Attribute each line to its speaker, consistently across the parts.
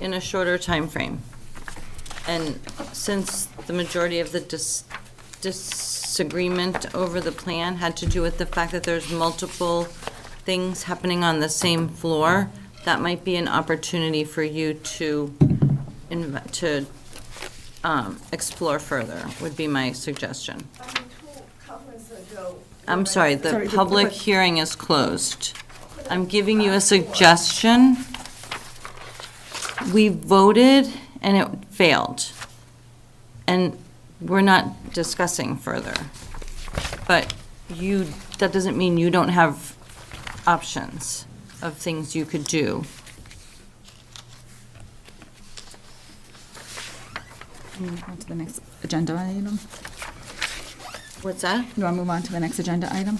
Speaker 1: in a shorter time frame. And since the majority of the dis- disagreement over the plan had to do with the fact that there's multiple things happening on the same floor, that might be an opportunity for you to, inv- to um, explore further, would be my suggestion.
Speaker 2: I mean, two conferences ago.
Speaker 1: I'm sorry,
Speaker 3: Sorry,
Speaker 1: the
Speaker 3: the
Speaker 1: public
Speaker 3: public-
Speaker 1: hearing is closed. I'm giving you a suggestion. We voted and it failed. And we're not discussing further. But you, that doesn't mean you don't have options of things you could do.
Speaker 3: Move on to the next agenda item.
Speaker 1: What's that?
Speaker 3: You want to move on to the next agenda item?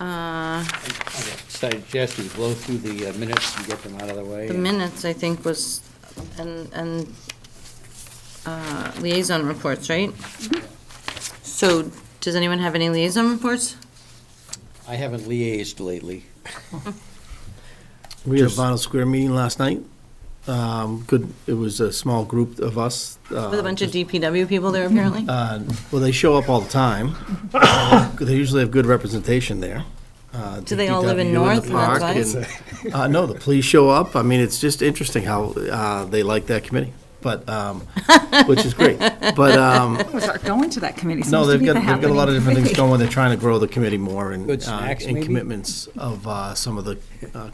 Speaker 1: Uh,
Speaker 4: Suggest we blow through the uh, minutes and get them out of the way.
Speaker 1: The
Speaker 4: and-
Speaker 1: minutes, I think, was, and, and uh, liaison reports, right? So, does anyone have any liaison reports?
Speaker 4: I haven't liaised lately.
Speaker 5: We had a Vinyl Square meeting last night. Um, Good, it was a small group of us. uh,
Speaker 1: With
Speaker 6: Uh,
Speaker 1: a bunch of DPW people
Speaker 7: Uh,
Speaker 1: there apparently?
Speaker 5: Well, they show up all the time. They usually have good representation there. Uh,
Speaker 1: Do they all live in
Speaker 5: DPW
Speaker 1: North,
Speaker 5: the
Speaker 1: and that's
Speaker 5: park,
Speaker 1: why?
Speaker 5: and, uh, No, the police show up. I mean, it's just interesting how uh, they like that committee, but, um, which is great. But, um,
Speaker 3: We're not going to that committee. It
Speaker 5: no,
Speaker 3: seems to
Speaker 5: they've
Speaker 3: be
Speaker 5: got,
Speaker 3: the
Speaker 5: they've got a lot of
Speaker 3: happening
Speaker 5: different things
Speaker 3: committee.
Speaker 5: going. They're trying to grow the committee more and.
Speaker 4: Good
Speaker 5: uh,
Speaker 4: snacks,
Speaker 5: And
Speaker 4: maybe?
Speaker 5: commitments of uh, some of the, uh,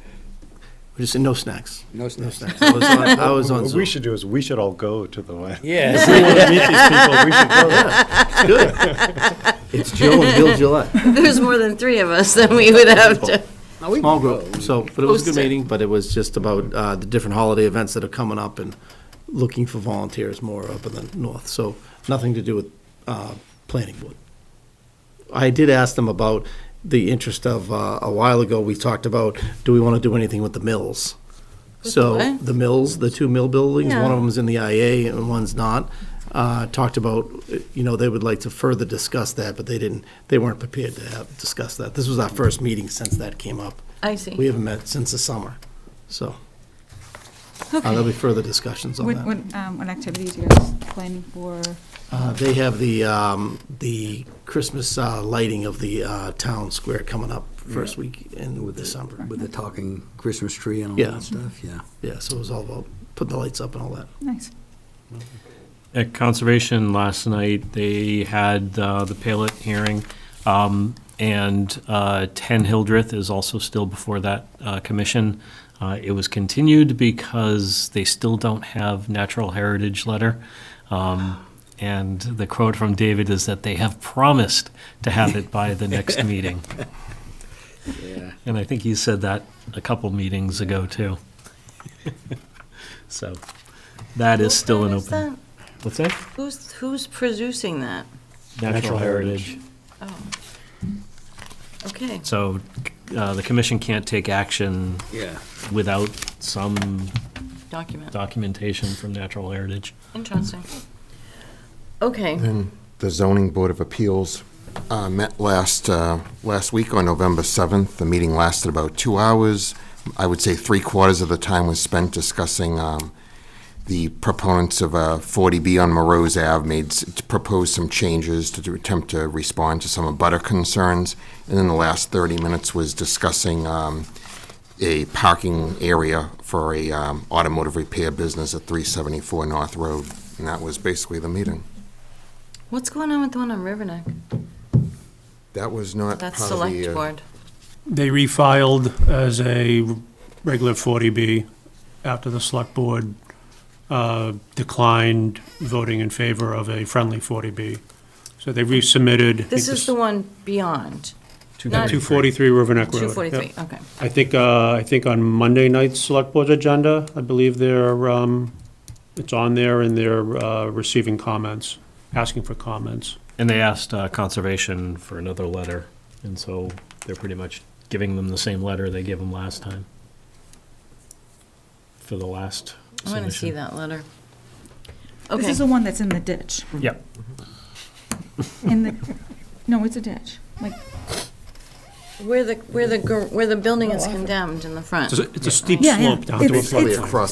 Speaker 5: we just said no snacks.
Speaker 4: No snacks.
Speaker 5: I was on- I was on
Speaker 8: What we
Speaker 5: Zoom.
Speaker 8: should do is, we should all go to the one.
Speaker 4: Yes.
Speaker 8: We wanna meet these people, we should go.
Speaker 5: It's Joe and Bill Gillette.
Speaker 1: There's more than three of us, then we would have to.
Speaker 4: Now, we
Speaker 5: Small
Speaker 4: can go.
Speaker 5: group, so, but it was a good
Speaker 1: Posted.
Speaker 5: meeting, but it was just about uh, the different holiday events that are coming up and looking for volunteers more up in the north, so nothing to do with uh, planning board. I did ask them about the interest of, uh, a while ago, we talked about, do we want to do anything with the mills? So,
Speaker 1: what?
Speaker 5: the mills, the two mill buildings, one
Speaker 1: Yeah.
Speaker 5: of them's in the IA and one's not, uh, talked about, uh, you know, they would like to further discuss that, but they didn't, they weren't prepared to have, discuss that. This was our first meeting since that came up.
Speaker 1: I
Speaker 5: We
Speaker 1: see.
Speaker 5: haven't met since the summer, so. uh, There'll be further discussions on
Speaker 3: What,
Speaker 5: that.
Speaker 3: what, um, what activities you guys planning for?
Speaker 5: Uh, They have the, um, the Christmas uh, lighting of the uh, town square coming up first week in December.
Speaker 4: With the talking Christmas tree and all
Speaker 5: Yeah.
Speaker 4: that stuff, yeah.
Speaker 5: Yeah, so it was all about putting the lights up and all that.
Speaker 3: Nice.
Speaker 7: At Conservation last night, they had uh, the Palet hearing, um, and uh, 10 Hildreth is also still before that uh, commission. Uh, It was continued because they still don't have natural heritage letter. Um, And the quote from David is that they have promised to have it by the next meeting.
Speaker 4: Yeah.
Speaker 7: And I think he said that a couple meetings ago, too. So that is still an
Speaker 1: Who is
Speaker 7: open.
Speaker 1: that?
Speaker 7: What's that?
Speaker 1: Who's, who's producing that? Oh.
Speaker 7: Natural heritage.
Speaker 1: Okay,
Speaker 7: So uh, the commission can't take action
Speaker 4: Yeah.
Speaker 7: without some
Speaker 1: document,
Speaker 7: documentation from natural heritage.
Speaker 1: interesting. Okay,
Speaker 6: The zoning board of appeals uh, met last, uh, last week on November 7th. The meeting lasted about two hours. I would say three quarters of the time was spent discussing um, the proponents of uh, 40B on Morose Ave made, s- proposed some changes to do- attempt to respond to some of butter concerns. And then the last 30 minutes was discussing um, a parking area for a um, automotive repair business at 374 North Road. And that was basically the meeting.
Speaker 1: what's going on with the one on Riverneck?
Speaker 6: That was not
Speaker 1: That's
Speaker 6: part of the,
Speaker 1: select
Speaker 6: uh,
Speaker 1: board.
Speaker 9: They refiled as a regular 40B after the select board uh, declined voting in favor of a friendly 40B. So they resubmitted. I think
Speaker 1: This is the one beyond, not
Speaker 9: 243 River Neck Road.
Speaker 1: 243,
Speaker 9: Yep.
Speaker 1: okay.
Speaker 9: I think, uh, I think on Monday night's select board agenda, I believe they're, um, it's on there and they're uh, receiving comments, asking for comments.
Speaker 7: And they asked uh, conservation for another letter, and so they're pretty much giving them the same letter they gave them last time for the last
Speaker 1: I
Speaker 7: submission.
Speaker 1: want to see that letter.
Speaker 3: This
Speaker 1: Okay,
Speaker 3: is the one that's in the ditch,
Speaker 7: Yep.
Speaker 3: in the, no, it's a ditch, like, Oh,
Speaker 1: where the, where the, gar- where the building is condemned in the front.
Speaker 9: It's a- It's a steep
Speaker 3: Yeah, yeah.
Speaker 9: slope down to a
Speaker 3: It's-
Speaker 6: Probably
Speaker 3: it's-
Speaker 6: across